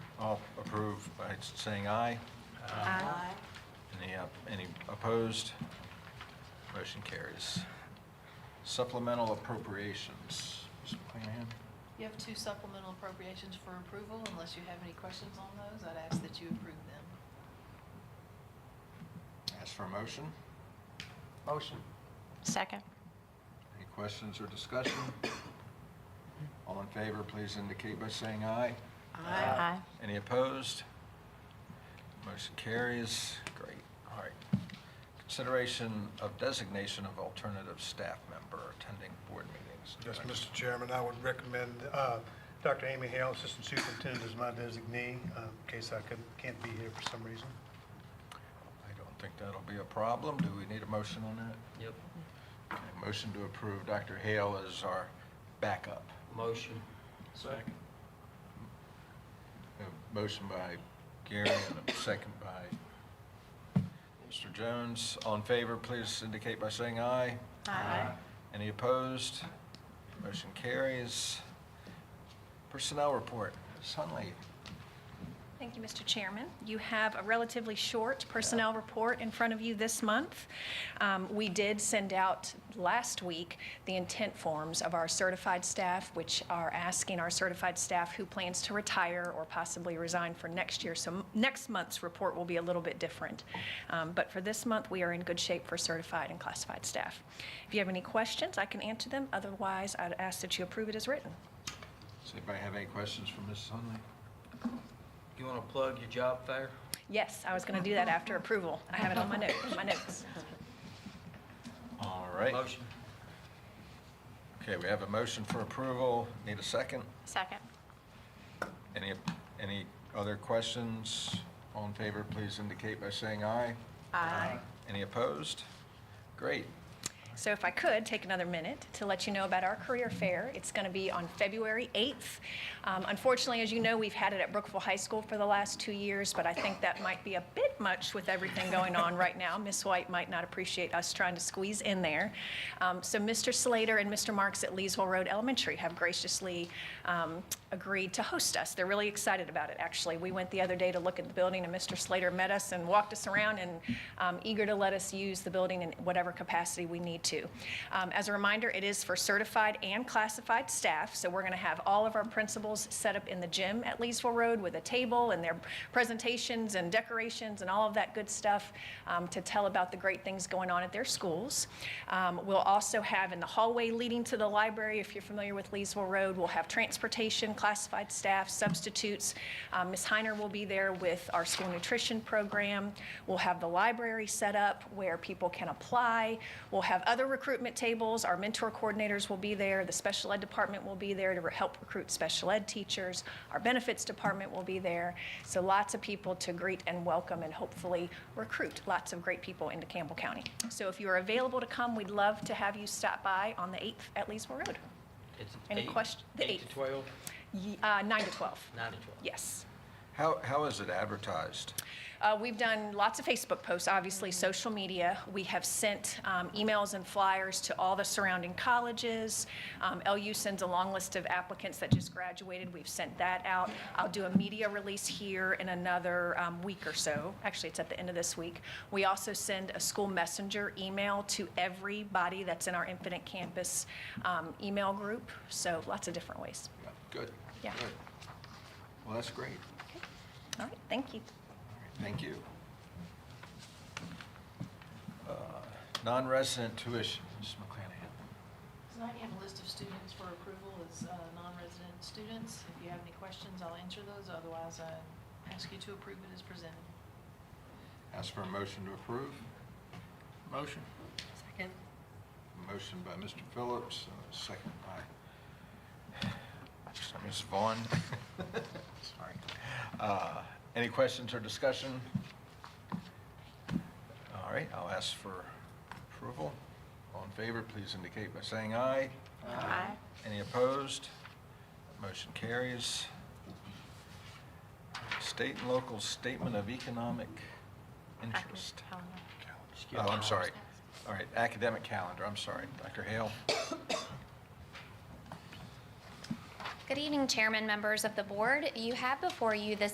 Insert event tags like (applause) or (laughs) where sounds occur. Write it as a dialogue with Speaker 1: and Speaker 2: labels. Speaker 1: approve by saying aye.
Speaker 2: Aye.
Speaker 1: Any, op- any opposed? Motion carries. Supplemental appropriations. Ms. McClanahan?
Speaker 3: You have two supplemental appropriations for approval. Unless you have any questions on those, I'd ask that you approve them.
Speaker 1: Ask for a motion.
Speaker 4: Motion.
Speaker 5: Second.
Speaker 1: Any questions or discussion? All in favor, please indicate by saying aye.
Speaker 4: Aye.
Speaker 1: Any opposed? Motion carries. Great. All right. Consideration of designation of alternative staff member attending board meetings.
Speaker 6: Yes, Mr. Chairman, I would recommend uh, Dr. Amy Hale, Assistant Superintendent, as my designee, uh, in case I could- can't be here for some reason.
Speaker 1: I don't think that'll be a problem. Do we need a motion on that?
Speaker 4: Yep.
Speaker 1: Okay, Motion to approve Dr. Hale as our backup.
Speaker 4: Motion. Second.
Speaker 1: A Motion by Gary and a second by Mr. Jones. All in favor, please indicate by saying aye.
Speaker 5: Aye.
Speaker 1: Any opposed? Motion carries. Personnel report, Ms. Hunley.
Speaker 7: Thank you, Mr. Chairman. You have a relatively short personnel report in front of you this month. Um, We did send out last week the intent forms of our certified staff, which are asking our certified staff who plans to retire or possibly resign for next year. So m- next month's report will be a little bit different. Um, But for this month, we are in good shape for certified and classified staff. If you have any questions, I can answer them. Otherwise, I'd ask that you approve it as written.
Speaker 1: Does anybody have any questions for Ms. Hunley?
Speaker 4: You want to plug your job fair?
Speaker 7: Yes, I was going to do that after approval. I have it on my note, my notes.
Speaker 1: All right.
Speaker 4: Motion.
Speaker 1: Okay, we have a motion for approval. Need a second?
Speaker 5: Second.
Speaker 1: Any, any other questions? All in favor, please indicate by saying aye.
Speaker 5: Aye.
Speaker 1: Any opposed? Great.
Speaker 7: So if I could, take another minute to let you know about our career fair. It's going to be on February 8th. Um, Unfortunately, as you know, we've had it at Brookville High School for the last two years, but I think that might be a bit much with everything going on right now. Miss White might not appreciate us trying to squeeze in there. Um, So Mr. Slater and Mr. Marks at Leesville Road Elementary have graciously um, agreed to host us. They're really excited about it, actually. We went the other day to look at the building, and Mr. Slater met us and walked us around and um, eager to let us use the building in whatever capacity we need to. Um, As a reminder, it is for certified and classified staff, so we're going to have all of our principals set up in the gym at Leesville Road with a table and their presentations and decorations and all of that good stuff um, to tell about the great things going on at their schools. Um, We'll also have in the hallway leading to the library, if you're familiar with Leesville Road, we'll have transportation, classified staff, substitutes. Um, Ms. Heiner will be there with our school nutrition program. We'll have the library set up where people can apply. We'll have other recruitment tables. Our mentor coordinators will be there. The special ed department will be there to re- help recruit special ed teachers. Our benefits department will be there. So lots of people to greet and welcome and hopefully recruit lots of great people into Campbell County. So if you're available to come, we'd love to have you stop by on the 8th at Leesville Road.
Speaker 4: It's
Speaker 7: Any
Speaker 4: eight-
Speaker 7: question- the
Speaker 4: Eight to
Speaker 7: eighth.
Speaker 4: 12,
Speaker 7: Ye- uh, 9 to 12.
Speaker 4: nine to 12.
Speaker 7: Yes.
Speaker 1: How, how is it advertised?
Speaker 7: Uh, We've done lots of Facebook posts, obviously, social media. We have sent um, emails and flyers to all the surrounding colleges. Um, LU sends a long list of applicants that just graduated. We've sent that out. I'll do a media release here in another um, week or so. Actually, it's at the end of this week. We also send a school messenger email to everybody that's in our Infinite Campus um, email group. So lots of different ways.
Speaker 1: Good.
Speaker 7: Yeah.
Speaker 1: good. Well, that's great.
Speaker 7: All right, thank you.
Speaker 1: Thank you. Uh, Non-resident tuition, Ms. McClanahan.
Speaker 3: Tonight you have a list of students for approval as uh, non-resident students. If you have any questions, I'll answer those. Otherwise, I ask you to approve it as presented.
Speaker 1: Ask for a motion to approve.
Speaker 4: Motion.
Speaker 2: Second.
Speaker 1: Motion by Mr. Phillips, and a second by Ms. Vaughn. (laughs) Sorry. Uh, Any questions or discussion? All right, I'll ask for approval. All in favor, please indicate by saying aye.
Speaker 5: Aye.
Speaker 1: Any opposed? Motion carries. State and local statement of economic interest.
Speaker 4: Skip
Speaker 1: Oh, I'm
Speaker 4: Thomas.
Speaker 1: sorry. All right, academic calendar, I'm sorry. Dr. Hale?
Speaker 5: Good evening, Chairman, members of the board. You have before you this